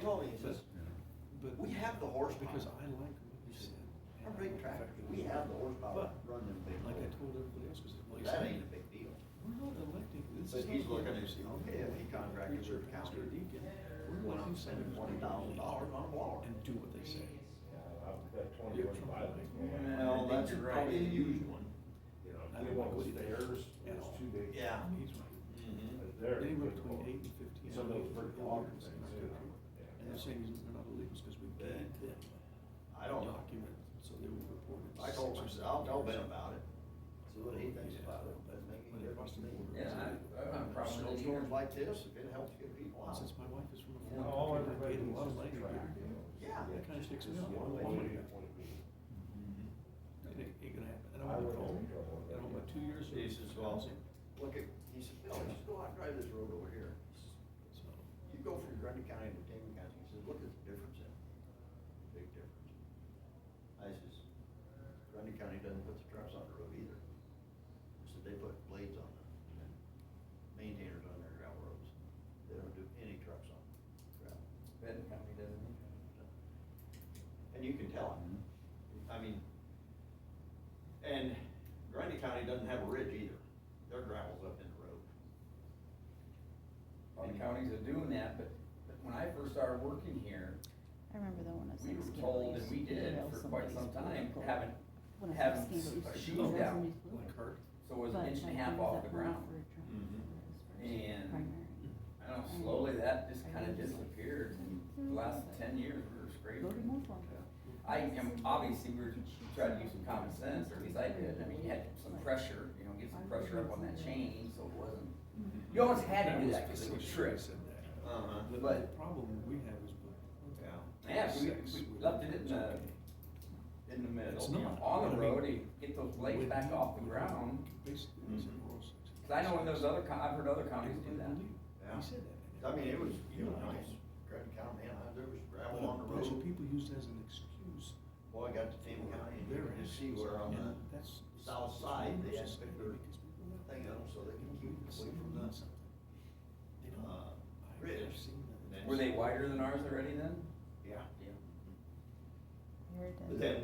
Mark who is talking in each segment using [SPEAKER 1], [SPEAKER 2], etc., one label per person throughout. [SPEAKER 1] told me, he says,
[SPEAKER 2] But-
[SPEAKER 1] we have the horsepower.
[SPEAKER 2] Because I like what you
[SPEAKER 1] He
[SPEAKER 2] said.
[SPEAKER 1] said, Our big tractor, we have the horsepower to run them big.
[SPEAKER 2] Like I
[SPEAKER 1] roads."
[SPEAKER 2] told everybody else, because like
[SPEAKER 1] That
[SPEAKER 2] I
[SPEAKER 1] ain't a
[SPEAKER 2] said,
[SPEAKER 1] big deal.
[SPEAKER 2] we're not electing, this
[SPEAKER 1] But
[SPEAKER 2] is.
[SPEAKER 1] he's
[SPEAKER 2] not
[SPEAKER 1] looking
[SPEAKER 2] like
[SPEAKER 1] at you, okay, if he contracted
[SPEAKER 2] preacher,
[SPEAKER 1] with the
[SPEAKER 2] pastor,
[SPEAKER 1] county,
[SPEAKER 2] deacon,
[SPEAKER 1] we're
[SPEAKER 2] We're
[SPEAKER 1] not
[SPEAKER 2] electing senators.
[SPEAKER 1] spending $20,000 on a blower.
[SPEAKER 2] And do what they say.
[SPEAKER 3] I've got twenty-one pilots.
[SPEAKER 1] Well, that's
[SPEAKER 2] you're
[SPEAKER 1] probably the
[SPEAKER 2] right.
[SPEAKER 1] used one.
[SPEAKER 3] You know,
[SPEAKER 2] I
[SPEAKER 3] they
[SPEAKER 2] don't
[SPEAKER 3] want
[SPEAKER 2] go
[SPEAKER 3] those
[SPEAKER 2] either.
[SPEAKER 3] fares,
[SPEAKER 2] Yeah.
[SPEAKER 3] it's too big.
[SPEAKER 1] Yeah.
[SPEAKER 2] He's right.
[SPEAKER 1] Mm-hmm.
[SPEAKER 3] But They're.
[SPEAKER 2] Anywhere
[SPEAKER 3] big
[SPEAKER 2] between
[SPEAKER 3] boys.
[SPEAKER 2] eight and fifteen.
[SPEAKER 3] Some of those
[SPEAKER 2] are
[SPEAKER 3] pretty long
[SPEAKER 2] illegal in
[SPEAKER 3] things,
[SPEAKER 2] this
[SPEAKER 3] you know.
[SPEAKER 2] country.
[SPEAKER 3] Yeah.
[SPEAKER 2] And they're saying they're not illegals because we gave them
[SPEAKER 1] I
[SPEAKER 2] a
[SPEAKER 1] don't know.
[SPEAKER 2] document, so they would report it.
[SPEAKER 1] I told
[SPEAKER 2] six or
[SPEAKER 1] him, I said,
[SPEAKER 2] seven
[SPEAKER 1] I'll tell
[SPEAKER 2] years
[SPEAKER 1] Ben
[SPEAKER 2] ago.
[SPEAKER 1] about it. See what he thinks
[SPEAKER 2] Oh, Yeah.
[SPEAKER 1] about it, but make it
[SPEAKER 2] But it
[SPEAKER 1] difference
[SPEAKER 2] must
[SPEAKER 1] to
[SPEAKER 2] have
[SPEAKER 1] me.
[SPEAKER 2] been-
[SPEAKER 4] Yeah, I, I have a problem with it.
[SPEAKER 1] Snowstorms like this, if it helps get people
[SPEAKER 2] And
[SPEAKER 1] out.
[SPEAKER 2] Since my wife is from a
[SPEAKER 3] You know, all
[SPEAKER 2] foreign country, I
[SPEAKER 3] everybody
[SPEAKER 2] paid a
[SPEAKER 3] needs
[SPEAKER 2] lot of
[SPEAKER 3] is a
[SPEAKER 2] money. to
[SPEAKER 3] track,
[SPEAKER 2] get her.
[SPEAKER 3] you know.
[SPEAKER 1] Yeah.
[SPEAKER 2] That kinda sticks me
[SPEAKER 3] Just
[SPEAKER 2] out.
[SPEAKER 3] get
[SPEAKER 2] One
[SPEAKER 3] away
[SPEAKER 2] woman.
[SPEAKER 3] with it, what it means.
[SPEAKER 1] Mm-hmm.
[SPEAKER 2] It ain't, ain't gonna happen. And
[SPEAKER 3] I
[SPEAKER 2] I went
[SPEAKER 3] wouldn't
[SPEAKER 2] home,
[SPEAKER 3] have trouble with
[SPEAKER 2] and
[SPEAKER 3] that.
[SPEAKER 2] home about two years.
[SPEAKER 1] He
[SPEAKER 2] of
[SPEAKER 1] says, well,
[SPEAKER 2] housing.
[SPEAKER 1] look at, he said, Bill, just go out and drive this road over here. He says,
[SPEAKER 2] So,
[SPEAKER 1] You go from Grundy County to Tama County, he says, look at the difference in, it. big difference. I says, Grundy County doesn't put the trucks on the road either. I said, they put blades on them, and then maintainers on their gravel roads. They don't do any trucks on gravel.
[SPEAKER 4] Benton County doesn't.
[SPEAKER 1] And you can tell, I mean, and Grundy County doesn't have a ridge either, their gravel's up in the road.
[SPEAKER 4] A lot of counties are doing that, but, but when I first started working here,
[SPEAKER 5] I remember the one of
[SPEAKER 4] we
[SPEAKER 5] six.
[SPEAKER 4] were told, and we did for quite some time, haven't, haven't shoes down.
[SPEAKER 2] like hurt.
[SPEAKER 4] So it was an inch and a half off the ground. And- I don't know, slowly that just kinda disappeared, and the last ten years we were scraping. I am, obviously, we were trying to use some common sense, or at least I did, I mean, you had some pressure, you know, get some pressure up on that chain, so it wasn't.
[SPEAKER 5] Mm-hmm.
[SPEAKER 4] You almost had
[SPEAKER 2] That
[SPEAKER 4] to do
[SPEAKER 2] was
[SPEAKER 4] that, cause it would
[SPEAKER 2] facetious, I
[SPEAKER 4] trip.
[SPEAKER 2] said that.
[SPEAKER 1] Uh-huh.
[SPEAKER 2] The, the
[SPEAKER 4] But-
[SPEAKER 2] problem we have is.
[SPEAKER 1] Yeah.
[SPEAKER 2] with-
[SPEAKER 4] Yeah, we,
[SPEAKER 2] Six
[SPEAKER 4] we
[SPEAKER 2] would-
[SPEAKER 4] left it in
[SPEAKER 2] it's
[SPEAKER 4] the,
[SPEAKER 2] okay.
[SPEAKER 4] in the middle,
[SPEAKER 2] It's
[SPEAKER 4] you know,
[SPEAKER 2] not. I
[SPEAKER 4] on the
[SPEAKER 2] mean,
[SPEAKER 4] road, and get those blades
[SPEAKER 2] With
[SPEAKER 4] back
[SPEAKER 2] the-
[SPEAKER 4] off the
[SPEAKER 2] with
[SPEAKER 4] ground.
[SPEAKER 2] Basically, it's a
[SPEAKER 1] Mhm.
[SPEAKER 2] rural section.
[SPEAKER 4] Cause I know in those other, co- I've heard other counties
[SPEAKER 2] Everybody
[SPEAKER 4] do that.
[SPEAKER 2] believed.
[SPEAKER 1] Yeah.
[SPEAKER 2] He said that.
[SPEAKER 1] I mean, it was, you know,
[SPEAKER 2] know,
[SPEAKER 1] nice, Grand County, man, I- there was
[SPEAKER 2] But
[SPEAKER 1] gravel on the
[SPEAKER 2] a bunch
[SPEAKER 1] road.
[SPEAKER 2] of people use that as an excuse.
[SPEAKER 1] Boy, I got to Tama County, and you
[SPEAKER 2] Their
[SPEAKER 1] can
[SPEAKER 2] actions.
[SPEAKER 1] see where on
[SPEAKER 2] And
[SPEAKER 1] the
[SPEAKER 2] that's-
[SPEAKER 1] south
[SPEAKER 2] that's
[SPEAKER 1] side,
[SPEAKER 2] why
[SPEAKER 1] they
[SPEAKER 2] it's
[SPEAKER 1] had
[SPEAKER 2] bad,
[SPEAKER 1] bigger
[SPEAKER 2] because people don't-
[SPEAKER 1] thing up so they can keep
[SPEAKER 2] don't
[SPEAKER 1] away
[SPEAKER 2] see
[SPEAKER 1] from the,
[SPEAKER 2] something. They don't.
[SPEAKER 1] uh,
[SPEAKER 2] I've
[SPEAKER 1] ridge.
[SPEAKER 2] seen that.
[SPEAKER 1] Then-
[SPEAKER 4] Were they wider than ours already then?
[SPEAKER 1] Yeah.
[SPEAKER 4] Yeah.
[SPEAKER 1] But then,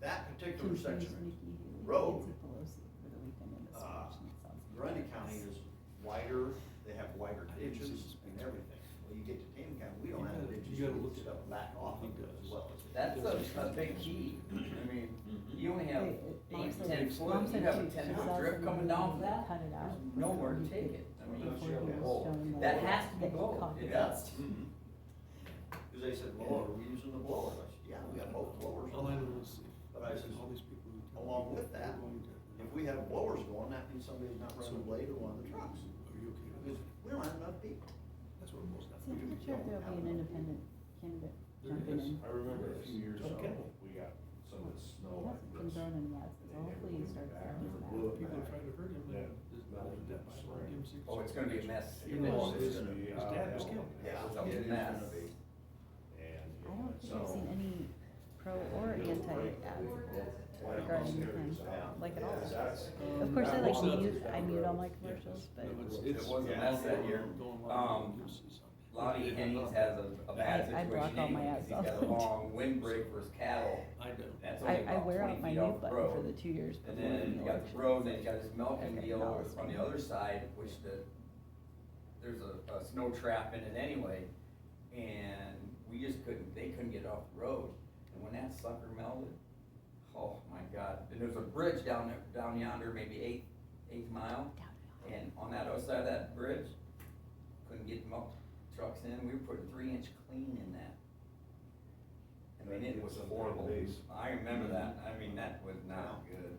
[SPEAKER 1] that particular section, road, uh, Grundy County is wider, they have wider
[SPEAKER 2] I didn't see
[SPEAKER 1] ditches
[SPEAKER 2] this
[SPEAKER 1] and
[SPEAKER 2] picture.
[SPEAKER 1] everything. Well, you get to Tama County, we
[SPEAKER 2] You
[SPEAKER 1] don't have
[SPEAKER 2] gotta-
[SPEAKER 1] ditches,
[SPEAKER 2] you
[SPEAKER 1] you
[SPEAKER 2] gotta
[SPEAKER 1] can
[SPEAKER 2] look at
[SPEAKER 1] stuff
[SPEAKER 2] it.
[SPEAKER 1] back off
[SPEAKER 2] He
[SPEAKER 1] of it as
[SPEAKER 2] does.
[SPEAKER 1] well.
[SPEAKER 4] That's a, a big key, I mean,
[SPEAKER 1] Mm-hmm.
[SPEAKER 4] you only have eight, ten foot, you have a ten foot drip coming down for that, there's nowhere to take it, I mean.
[SPEAKER 3] That's your goal.
[SPEAKER 4] That has to be gold, it
[SPEAKER 1] Yeah.
[SPEAKER 4] does.
[SPEAKER 1] Cause Mm-hmm. they said, well, are we using the blower? I said, yeah, we got both blowers.
[SPEAKER 2] All I know is if-
[SPEAKER 1] But I said,
[SPEAKER 2] all these people who tell
[SPEAKER 1] along
[SPEAKER 2] me
[SPEAKER 1] with
[SPEAKER 2] they're
[SPEAKER 1] that,
[SPEAKER 2] going to-
[SPEAKER 1] If we have blowers going, that means somebody's not running a blade or one of the trucks.
[SPEAKER 2] Are you
[SPEAKER 1] Because
[SPEAKER 2] okay with that?
[SPEAKER 1] we don't have enough people.
[SPEAKER 2] That's what it boils down to.
[SPEAKER 5] See, I'm not sure if there'll be an independent candidate
[SPEAKER 2] There is.
[SPEAKER 5] jumping in.
[SPEAKER 3] I remember a few years
[SPEAKER 2] Don't
[SPEAKER 3] ago,
[SPEAKER 2] get me.
[SPEAKER 3] we got some of the
[SPEAKER 5] He
[SPEAKER 3] snow
[SPEAKER 5] hasn't
[SPEAKER 3] like
[SPEAKER 5] been
[SPEAKER 3] this.
[SPEAKER 5] burning yet, so hopefully he starts selling
[SPEAKER 2] People are trying to hurt him,
[SPEAKER 3] Yeah.
[SPEAKER 2] but there's nothing that much. Give him six.
[SPEAKER 4] Oh, it's gonna be a mess.
[SPEAKER 2] You know,
[SPEAKER 3] It's
[SPEAKER 2] his
[SPEAKER 3] gonna be
[SPEAKER 2] his
[SPEAKER 3] out
[SPEAKER 2] dad
[SPEAKER 3] of
[SPEAKER 2] was
[SPEAKER 3] hell.
[SPEAKER 2] killed.
[SPEAKER 4] Yeah.
[SPEAKER 1] It's
[SPEAKER 4] It's a
[SPEAKER 1] gonna
[SPEAKER 4] mess.
[SPEAKER 1] be.
[SPEAKER 3] And,
[SPEAKER 5] I don't
[SPEAKER 3] you
[SPEAKER 5] think
[SPEAKER 3] know,
[SPEAKER 5] I've
[SPEAKER 3] so.
[SPEAKER 5] seen any pro or
[SPEAKER 3] Little
[SPEAKER 5] anti
[SPEAKER 3] break,
[SPEAKER 5] ad
[SPEAKER 3] like,
[SPEAKER 5] regarding
[SPEAKER 3] upstairs,
[SPEAKER 5] him,
[SPEAKER 3] uh,
[SPEAKER 5] like at
[SPEAKER 3] yeah,
[SPEAKER 5] all.
[SPEAKER 3] that's-
[SPEAKER 5] Of course, I
[SPEAKER 3] that
[SPEAKER 5] like
[SPEAKER 3] was
[SPEAKER 5] to
[SPEAKER 3] a-
[SPEAKER 5] use, I mute all my
[SPEAKER 2] Yeah.
[SPEAKER 5] commercials, but
[SPEAKER 2] No, it's-
[SPEAKER 3] It
[SPEAKER 2] it's-
[SPEAKER 4] was a
[SPEAKER 2] yeah,
[SPEAKER 4] mess
[SPEAKER 2] it's
[SPEAKER 4] that
[SPEAKER 2] going
[SPEAKER 4] year.
[SPEAKER 2] along with
[SPEAKER 4] Um,
[SPEAKER 2] the juices.
[SPEAKER 4] Lonnie
[SPEAKER 2] Yeah.
[SPEAKER 4] Hennings has a, a bad
[SPEAKER 5] I- I block
[SPEAKER 4] situation
[SPEAKER 5] all my
[SPEAKER 4] anyway, cause he's got
[SPEAKER 5] ads
[SPEAKER 4] a
[SPEAKER 5] out.
[SPEAKER 4] long windbreak for his cattle,
[SPEAKER 2] I do.
[SPEAKER 4] that's only
[SPEAKER 5] I, I
[SPEAKER 4] about
[SPEAKER 5] wear out
[SPEAKER 4] twenty
[SPEAKER 5] my
[SPEAKER 4] feet
[SPEAKER 5] mute
[SPEAKER 4] off the
[SPEAKER 5] button for the
[SPEAKER 4] road.
[SPEAKER 5] two years
[SPEAKER 4] And
[SPEAKER 5] before
[SPEAKER 4] then
[SPEAKER 5] the
[SPEAKER 4] you got the
[SPEAKER 5] election.
[SPEAKER 4] road, then you got this milking
[SPEAKER 5] Okay,
[SPEAKER 4] deal
[SPEAKER 5] now
[SPEAKER 4] over
[SPEAKER 5] it's
[SPEAKER 4] on the
[SPEAKER 5] fine.
[SPEAKER 4] other side, which the, there's a, a snow trap in it anyway. And we just couldn't, they couldn't get off the road, and when that sucker melted, oh my god, and there's a bridge down there, down yonder, maybe eight, eighth mile. And on that other side of that bridge, couldn't get milk trucks in, we were putting three inch clean in that. I mean, it was horrible, I remember that, I mean, that was not good.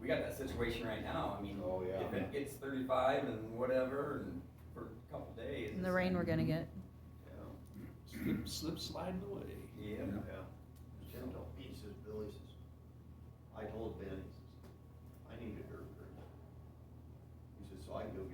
[SPEAKER 4] We got that situation right now, I mean,
[SPEAKER 3] Oh, yeah.
[SPEAKER 4] if it gets thirty-five and whatever, and for a couple days.
[SPEAKER 5] And the rain we're gonna get.
[SPEAKER 1] Yeah,
[SPEAKER 2] Slip, slip sliding away.
[SPEAKER 4] Yeah,
[SPEAKER 1] yeah. Jim told me, he says, Billy says, I told Ben, he says, I need a dirt crew. He says, so I can go get
[SPEAKER 4] uh,